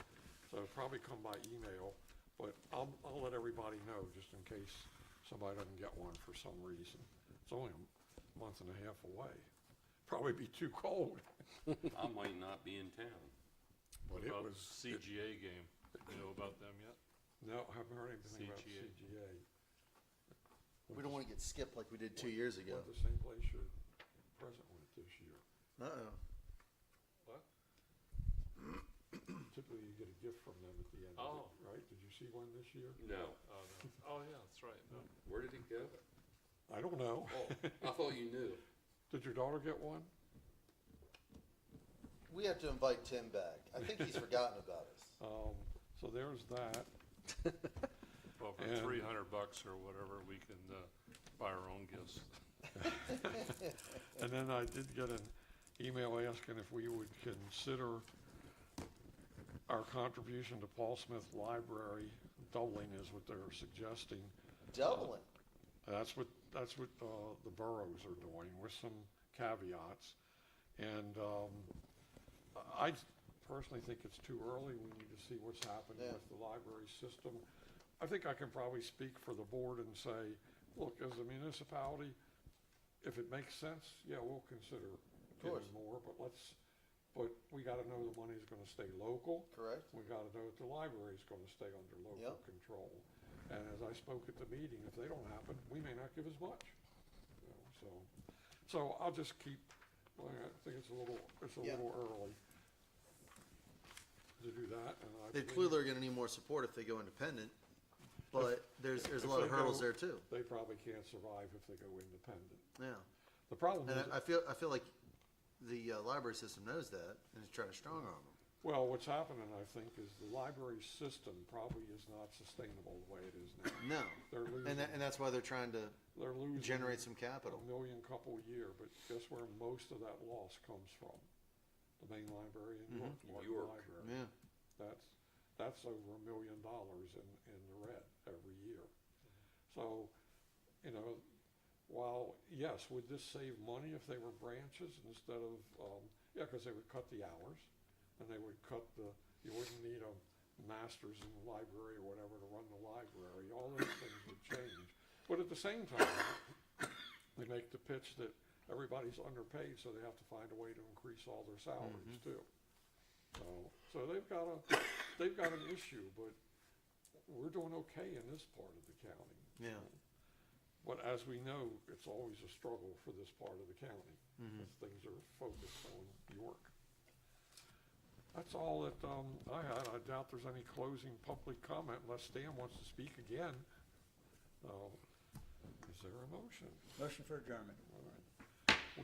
it'll probably come by email, but I'll, I'll let everybody know, just in case somebody doesn't get one for some reason. It's only a month and a half away. Probably be too cold, I might not be in town. but it About was, CGA game. You know about them yet? no, I haven't heard anything about CGA. CGA. We don't want to get skipped like we did two years ago. Went the same place your president went this year. Uh-oh. What? Typically, you get a gift from them at the end Oh. of it, right? Did you see one this year? No. Oh, no. oh yeah, that's right. No. Where did it go? I don't know. Oh, I thought you knew. Did your daughter get one? We have to invite Tim back. I think he's forgotten about us. Um, so there's that. Well, for And- three hundred bucks or whatever, we can uh, buy our own gifts. And then I did get an email asking if we would consider our contribution to Paul Smith Library doubling is what they're suggesting. Dublin. That's what, that's what uh, the boroughs are doing with some caveats. And um, I personally think it's too early. We need to see what's happening Yeah. with the library system. I think I can probably speak for the board and say, look, as a municipality, if it makes sense, yeah, we'll consider course. giving more, but let's, but we got to know the money's going to stay local. Correct. We got to know that the library's going to stay under local Yep. control. And as I spoke at the meeting, if they don't happen, we may not give as much. You know, So, so I'll just keep, well, I think it's a little, it's a Yeah. little early to do that, and I. They believe clearly are going to need more support if they go independent, but there's, there's a if lot they of hurdles go- there too. They probably can't survive if they go independent. Yeah. The problem And I I is, feel, I feel like the uh, library system knows that and is trying to strong arm them. well, what's happening, I think, is the library system probably is not sustainable the way it is now. No. They're And that, losing, and that's why they're trying to they're losing. generate some a capital. million couple a year, but guess where most of that loss comes from? The main library in York, Martin York. Library. Yeah. That's, that's over a million dollars in, in the red every year. So, you know, while, yes, would this save money if they were branches instead of, um, yeah, because they would cut the hours, and they would cut the, you wouldn't need a master's in the library or whatever to run the library, all those things would change. But at the same time, they make the pitch that everybody's underpaid, so they have to find a way to increase all their salaries too. So, so they've got a, they've got an issue, but we're doing okay in this part of the county. Yeah. But as we know, it's always a struggle for this part of the county, Mm-hmm. because things are focused on York. That's all that um, I had. I doubt there's any closing public comment unless Stan wants to speak again. Uh, Is there a motion? Motion for adjournment. All right.